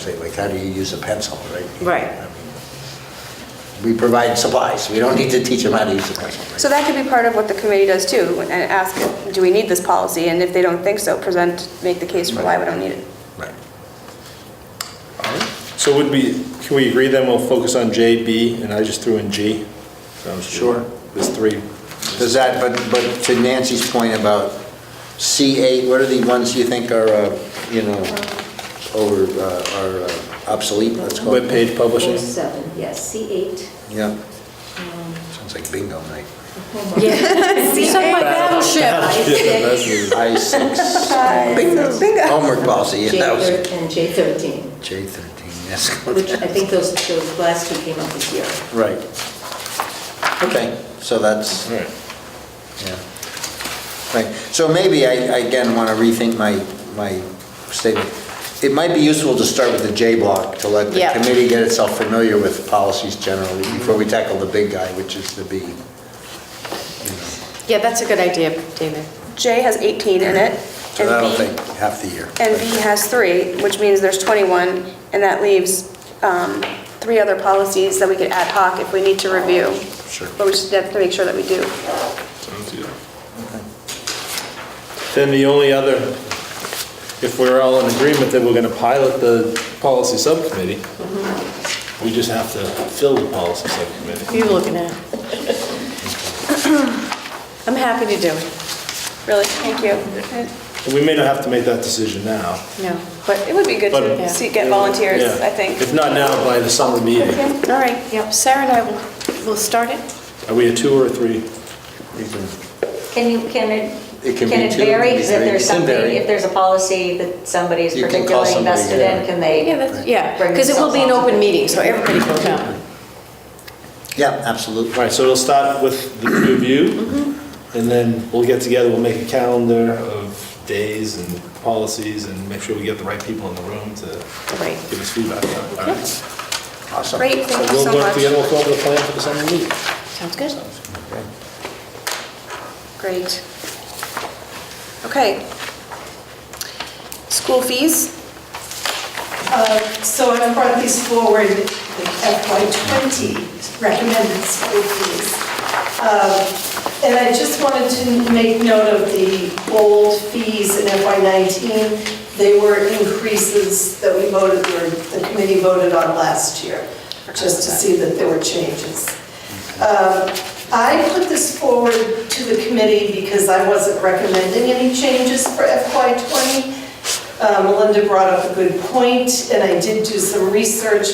Say, like, how do you use a pencil, right? Right. I mean, We provide supplies, we don't need to teach them how to use a pencil. right? So that could be part of what the committee does too, and ask, do we need this policy? And if they don't think so, present, make the case for why we don't need it. Right. So would we, can we agree then we'll focus on J, B, and I just threw in G? Sounds good. Sure. There's three. Does that, but, but to Nancy's point about C8, what are the ones you think are, uh, you know, over, uh, are uh, obsolete, let's call it? Webpage publishing? Or seven, yes, C8. Yeah. Um, Sounds like bingo night. Suck my battleship. Yeah, that's it. I6. Bingo. Bingo. Homework policy, yeah, that was J13 and J13, J13, yes. which I think those, those last two came up this year. Right. Okay, so that's, All right. Yeah. Right, so maybe I, I again want to rethink my, my statement. It might be useful to start with the J block, to let the Yeah. committee get itself familiar with policies generally before we tackle the big guy, which is the B. you know. Yeah, that's a good idea, David. J has 18 in it, So that'll and take B, half the year. and B has three, which means there's 21, and that leaves um, three other policies that we could ad hoc if we need to review. Sure. But we just have to make sure that we do. Sounds good. Then the only other, if we're all in agreement that we're gonna pilot the policy subcommittee, we just have to fill the policy Who subcommittee. are you looking at? I'm happy to do it. Really, thank you. And We may not have to make that decision now. No. But it would be good But- to see, get volunteers, Yeah. I think. If not now, by the summer meeting. All right, yep, Sarah and I will, will start it. Are we a two or a three? You can- Can you, can It it, can can be it two, it vary? can be Is if three. It there's can something, vary. if there's a policy that somebody is You can call particularly somebody, invested yeah. in, can they? Yeah, that's, yeah, because it will be an open meeting, so everybody can come. Yeah, absolutely. All right, so it'll start with the two of you, Mm-hmm. and then we'll get together, we'll make a calendar of days and policies, and make sure we get the right people in the room to Right. give us feedback. All right. So Awesome. Great, thank you so we'll work together, much. we'll come up with a plan for the summer meeting. Sounds good. Great. Okay. School fees? Uh, So I brought these forward, the FY '20 recommended school fees. Um, And I just wanted to make note of the old fees in FY '19. They were increases that we voted, or the committee voted on last year, just to see that there were changes. Um, I put this forward to the committee because I wasn't recommending any changes for FY '20. Uh, Melinda brought up a good point, and I did do some research.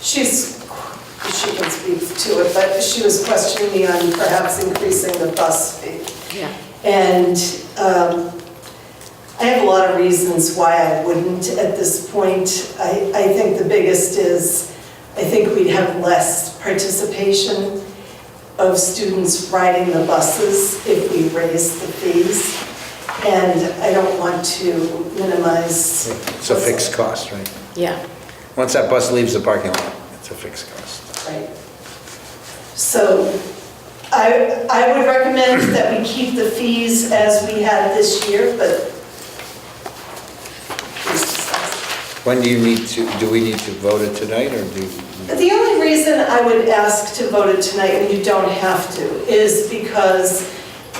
She's, she can speak to it, but she was questioning me on perhaps increasing the bus fee. Yeah. And um, I have a lot of reasons why I wouldn't at this point. I, I think the biggest is, I think we'd have less participation of students riding the buses if we raise the fees. And I don't want to minimize. It's a fixed cost, right? Yeah. Once that bus leaves the parking lot, it's a fixed cost. Right. So I, I would recommend that we keep the fees as we had this year, but. When do you need to, do we need to vote it tonight, or do? But The only reason I would ask to vote it tonight, and you don't have to, is because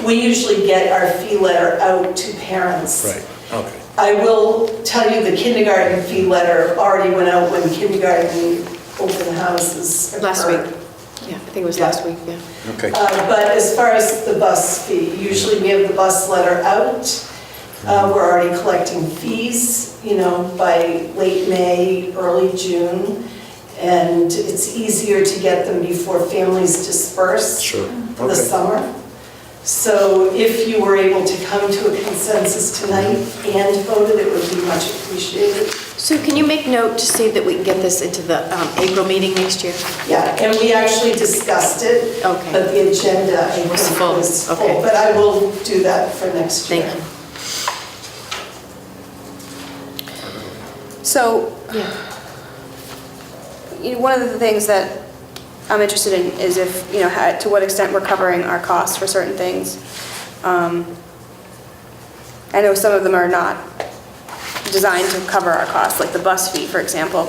we usually get our fee letter out to parents. Right, okay. I will tell you, the kindergarten fee letter already went out when kindergarten open houses Last week. occurred. Yeah, I think it was last week, yeah. Okay. Uh, But as far as the bus fee, usually we have the bus letter out. Mm-hmm. Uh, We're already collecting fees, you know, by late May, early June, and it's easier to get them before families disperse Sure, for the okay. summer. So if you were able to come to a consensus tonight and vote it, it would be much appreciated. Sue, can you make note to see that we can get this into the um, April meeting next year? Yeah, and we actually discussed it. Okay. But the agenda, I think, Was full, was okay. full. But I will do that for next year. Thank you. So Yeah. you know, one of the things that I'm interested in is if, you know, how- to what extent we're covering our costs for certain things. Um, I know some of them are not designed to cover our costs, like the bus fee, for example,